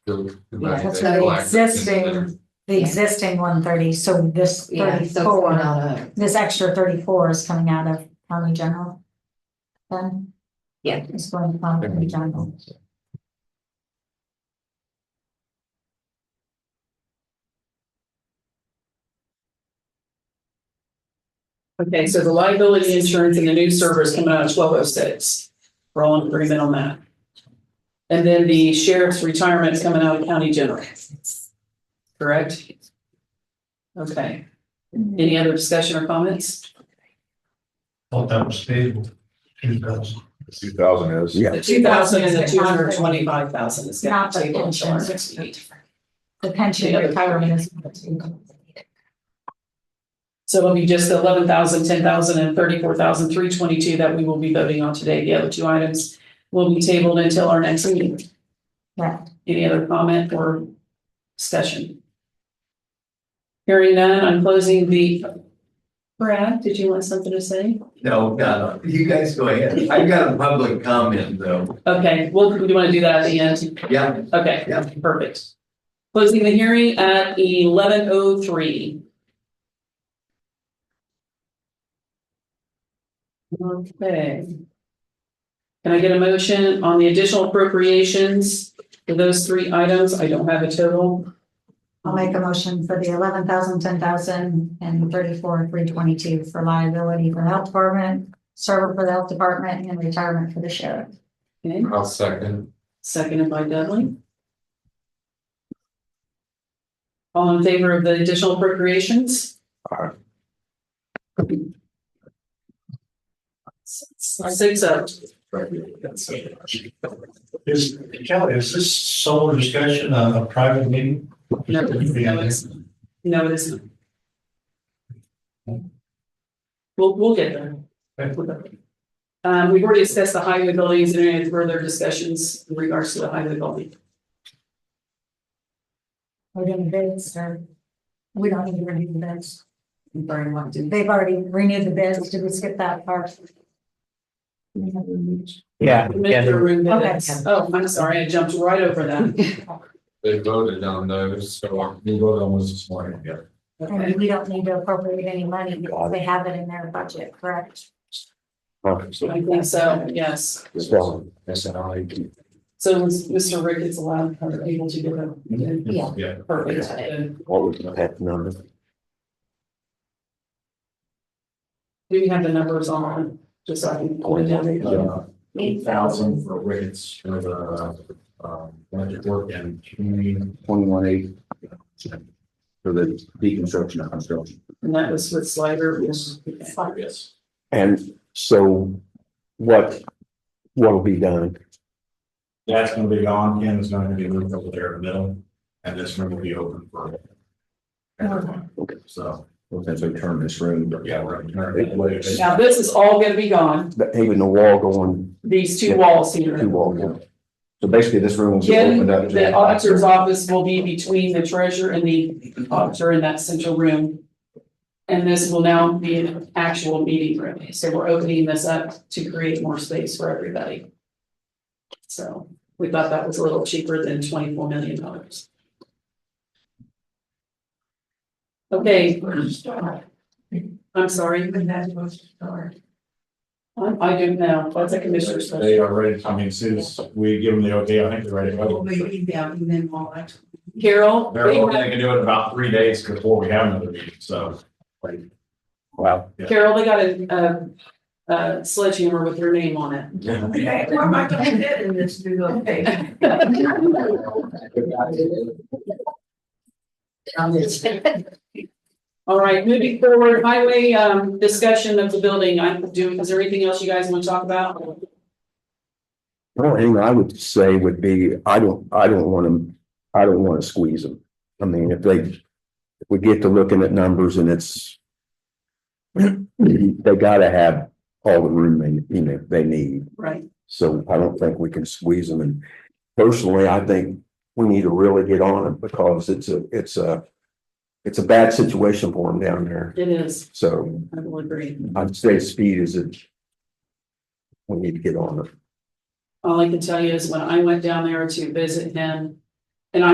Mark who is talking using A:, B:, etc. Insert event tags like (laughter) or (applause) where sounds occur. A: the- the
B: Yeah,
A: money
B: that's
A: that
B: right.
A: collected is in
C: Existing.
A: there.
C: the existing one thirty, so this
B: Yeah, so it's
C: thirty-four,
B: not a-
C: this extra thirty-four is coming out of county general. Then?
B: Yeah.
C: It's going to county general.
D: Okay, so the liability insurance and the new server is coming out of twelve oh six. We're all in agreement on that. And then the sheriff's retirement is coming out of county general. Correct? Okay.
B: Mm-hmm.
D: Any other discussion or comments?
E: Thought that was stable. Two thousand.
F: Two thousand is.
G: Yeah.
D: The two thousand and the two hundred twenty-five thousand is going
C: Not
D: to
C: the
D: table until our
C: pension.
D: next meeting.
C: The pension
D: The other-
C: retirement is.
D: So it'll be just the eleven thousand, ten thousand and thirty-four thousand, three twenty-two that we will be voting on today. The other two items will be tabled until our next meeting.
C: Correct.
D: Any other comment or discussion? Hearing none, I'm closing the. Brad, did you want something to say?
A: No, no, no, you guys go ahead. I got a public comment though.
D: Okay, well, do you want to do that at the end?
A: Yeah,
D: Okay,
A: Yeah.
D: perfect. Closing the hearing at eleven oh three. Okay. Can I get a motion on the additional appropriations for those three items? I don't have a total.
C: I'll make a motion for the eleven thousand, ten thousand, and thirty-four, three twenty-two for liability for the health department, server for the health department, and retirement for the sheriff.
D: Okay,
A: I'll second.
D: seconded by Dudley. All in favor of the additional appropriations?
G: Aye.
D: Six oh.
E: Is, Kelly, is this solo discussion, a a private meeting?
D: No, no, it's, no, it isn't. We'll, we'll get there. Um, we've already discussed the highway buildings and any further discussions in regards to the highway building.
C: We're doing bids, or we don't need to renew the bids.
D: Brian wanted to-
C: They've already renewed the bids. Did we skip that part?
H: Yeah, yeah,
D: Mr.
H: they're-
D: Room
C: Okay.
D: minutes. Oh, I'm sorry, I jumped right over that.
A: They voted on those, so we voted on this this morning, yeah.
C: And
D: Okay,
C: we don't need to appropriate any money because they have it in their budget, correct?
D: I think so, yes.
G: Spelling.
A: That's an I D.
D: So was Mr. Ricketts allowed or able to give
F: Mm-hmm.
D: a
B: Yeah.
A: Yeah.
D: perfect? uh,
G: What was that number?
D: Do you have the numbers on, just so I can point it out?
A: Uh, Eight thousand for rates for the, um, budget work and community.
G: Twenty-one eight. For the deconstruction and construction.
D: And that was with Slider.
C: It's like,
A: Yes.
G: And so what, what'll be done?
F: That's gonna be gone, Ken is gonna be moved over there in the middle, and this room will be open for. everyone.
G: Okay.
F: So,
G: We're gonna turn this room, but
F: yeah, we're gonna turn it loose.
D: Now, this is all gonna be gone,
G: But Even the wall going
D: these two walls here.
G: two walls. So basically this room will be
D: Ken,
G: opened up. to
D: the auditor's office will be between the treasurer and the auditor in that central room. And this will now be an actual meeting room, so we're opening this up to create more space for everybody. So we thought that was a little cheaper than twenty-four million dollars. Okay. I'm sorry. I, I don't know, what's a commissioner's?
F: They are ready, I mean, as soon as we give them the okay, I think they're ready. to go.
D: Carol,
F: They're
D: we
F: hoping
D: have-
F: they can do it in about three days before we have another meeting, so.
G: Wow.
F: Yeah.
D: Carol, they got a, a, a sledgehammer with your name on it.
B: Okay, where am I gonna fit in this new location? On this.
D: All right, moving forward, highway, um, discussion of the building, I'm doing, is there anything else you guys want to talk about?
G: Well, thing I would say would be, I don't, I don't want them, I don't want to squeeze them. I mean, if they, if we get to looking at numbers and it's. (clears throat) They gotta have all the room they, you know, they need,
D: Right,
G: so I don't think we can squeeze them and. Personally, I think we need to really get on it because it's a, it's a. It's a bad situation for them down there,
D: it is,
G: so
D: I will agree.
G: I'd say speed is a. We need to get on it.
D: All I can tell you is when I went down there to visit him,